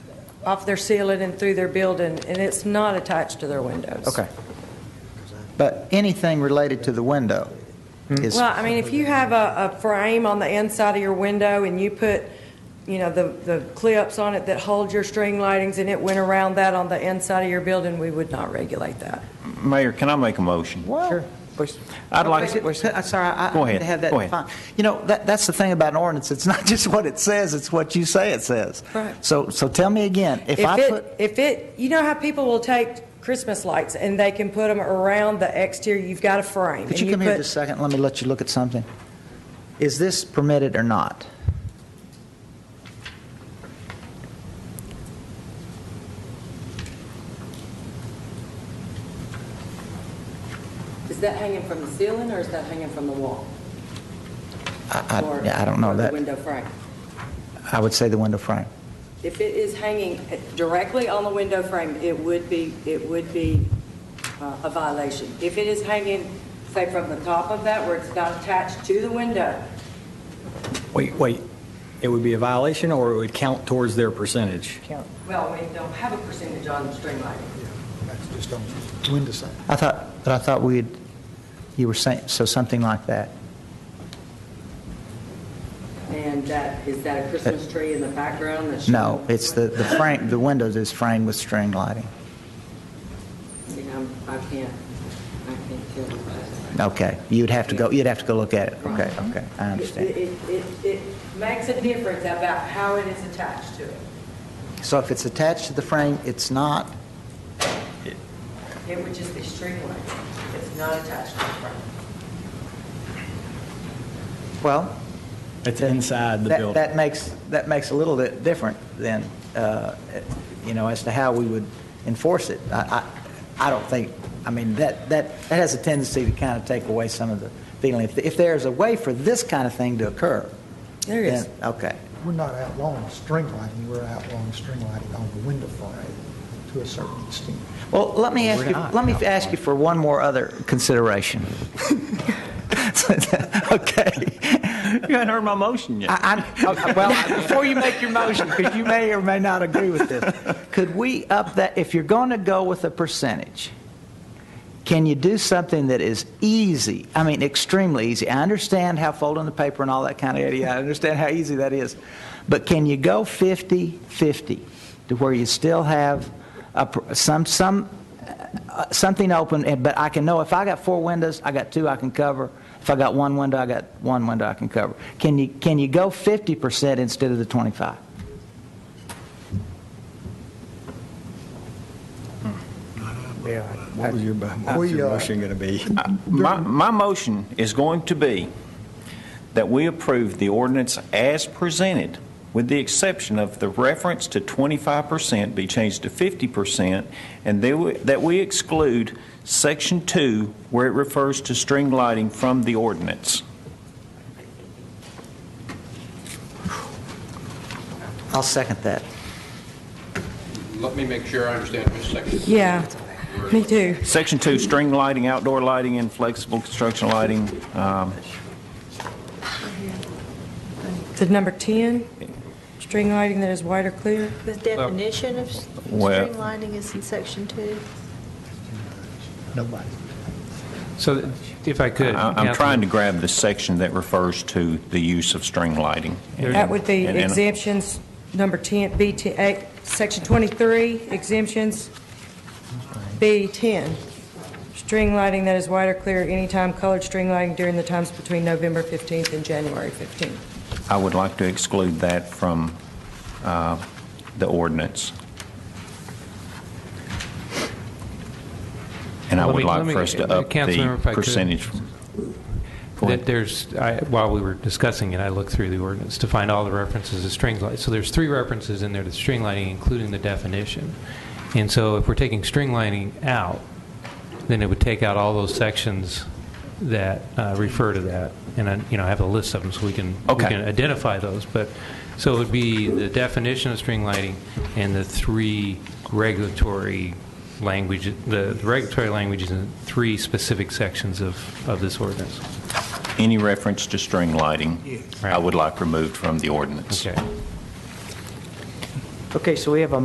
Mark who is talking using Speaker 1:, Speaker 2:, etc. Speaker 1: off their ceiling and through their building, and it's not attached to their windows.
Speaker 2: Okay. But anything related to the window is,
Speaker 1: Well, I mean, if you have a, a frame on the inside of your window and you put, you know, the, the clips on it that hold your string lightings and it went around that on the inside of your building, we would not regulate that.
Speaker 3: Mayor, can I make a motion?
Speaker 2: well,
Speaker 3: I'd like,
Speaker 2: Wait, wait, I'm sorry, I I
Speaker 3: Go
Speaker 2: need
Speaker 3: ahead.
Speaker 2: to have that
Speaker 3: Go ahead.
Speaker 2: defined. You know, that, that's the thing about an ordinance, it's not just what it says, it's what you say it says.
Speaker 1: Right.
Speaker 2: So, so tell me again, if
Speaker 1: If
Speaker 2: I put,
Speaker 1: it, if it, you know how people will take Christmas lights and they can put them around the exterior, you've got a frame.
Speaker 2: could
Speaker 1: and
Speaker 2: you come here
Speaker 1: put-
Speaker 2: just a second, let me let you look at something? Is this permitted or not?
Speaker 4: Is that hanging from the ceiling or is that hanging from the wall?
Speaker 2: I,
Speaker 4: Or-
Speaker 2: I- I don't know
Speaker 4: or
Speaker 2: that,
Speaker 4: the window frame?
Speaker 2: I would say the window frame.
Speaker 4: If it is hanging directly on the window frame, it would be, it would be uh, a violation. If it is hanging, say, from the top of that where it's not attached to the window,
Speaker 5: Wait, wait. It would be a violation, or it would count towards their percentage?
Speaker 4: well, we don't have a percentage on string lighting.
Speaker 6: That's just on the window side.
Speaker 2: I thought, but I thought we'd, you were saying, so something like that.
Speaker 4: And that, is that a Christmas tree in the background that's?
Speaker 2: No,
Speaker 4: showing-
Speaker 2: it's the, the frame, the windows is framed with string lighting.
Speaker 4: See, I'm- I can't, I can't tell you that.
Speaker 2: Okay, you'd have to go, you'd have to go look at it. Okay,
Speaker 4: Right.
Speaker 2: okay, I
Speaker 4: It,
Speaker 2: understand.
Speaker 4: it, it- it makes a difference about how it is attached to it.
Speaker 2: So if it's attached to the frame, it's not,
Speaker 4: It would just be string lighting. It's not attached to the front.
Speaker 2: well,
Speaker 5: It's inside the
Speaker 2: that,
Speaker 5: building.
Speaker 2: that makes, that makes a little bit different than, uh, you know, as to how we would enforce it. I, I, I don't think, I mean, that, that, that has a tendency to kind of take away some of the feeling. If, if there's a way for this kind of thing to occur.
Speaker 1: There is.
Speaker 2: then- Okay.
Speaker 6: We're not outlawing string lighting, we're outlawing string lighting on the window frame to a certain extent.
Speaker 2: Well, let me ask you, let me ask you for one more other consideration. Okay.
Speaker 3: you haven't heard my motion yet.
Speaker 2: I, I, okay, well, before you make your motion, because you may or may not agree with this, could we up that, if you're going to go with a percentage, can you do something that is easy? I mean, extremely easy. I understand how folding the paper and all that kind of idea, I understand how easy that is. But can you go 50-50 to where you still have a, pr- some, some, uh, something open, and- but I can know if I got four windows, I got two I can cover. If I got one window, I got one window I can cover. Can you, can you go 50% instead of the 25?
Speaker 5: What was your bu- what was
Speaker 6: We,
Speaker 5: your
Speaker 6: uh,
Speaker 5: motion going to be?
Speaker 3: My, my motion is going to be that we approve the ordinance as presented, with the exception of the reference to 25% be changed to 50%, and they wi- that we exclude Section 2, where it refers to string lighting from the ordinance.
Speaker 2: I'll second that.
Speaker 7: Let me make sure I understand for a second.
Speaker 1: Yeah, me too.
Speaker 3: Section 2, string lighting, outdoor lighting, and flexible construction lighting. um,
Speaker 1: The number 10, string lighting that is white or clear.
Speaker 8: The definition of s-
Speaker 3: Well-
Speaker 8: string lining is in section two.
Speaker 6: Nobody.
Speaker 9: So if I could.
Speaker 3: I- I'm
Speaker 9: Catherine,
Speaker 3: trying to grab the section that refers to the use of string lighting.
Speaker 1: That would be
Speaker 3: And- and-
Speaker 1: exemptions, number 10, B, 10 eh, section 23, exemptions, B, 10. String lighting that is white or clear anytime colored string lighting during the times between November 15th and January 15th.
Speaker 3: I would like to exclude that from uh, the ordinance. And I
Speaker 9: Let
Speaker 3: would
Speaker 9: me-
Speaker 3: like
Speaker 9: let me-
Speaker 3: for us to
Speaker 9: uh,
Speaker 3: up
Speaker 9: Councilmember, if I
Speaker 3: the
Speaker 9: could.
Speaker 3: percentage. Go
Speaker 9: that
Speaker 3: ahead.
Speaker 9: There's, I- while we were discussing it, I looked through the ordinance to find all the references to string lighting. So there's three references in there to string lighting, including the definition. And so if we're taking string lighting out, then it would take out all those sections that uh, refer to that. And, I- you know, I have a list of them, so we can, we
Speaker 3: Okay.
Speaker 9: can identify those. But, so it would be the definition of string lighting and the three regulatory language, the the regulatory languages in three specific sections of, of this ordinance.
Speaker 3: Any reference to string lighting, I would like removed from the ordinance.
Speaker 9: Okay.
Speaker 2: Okay, so we have a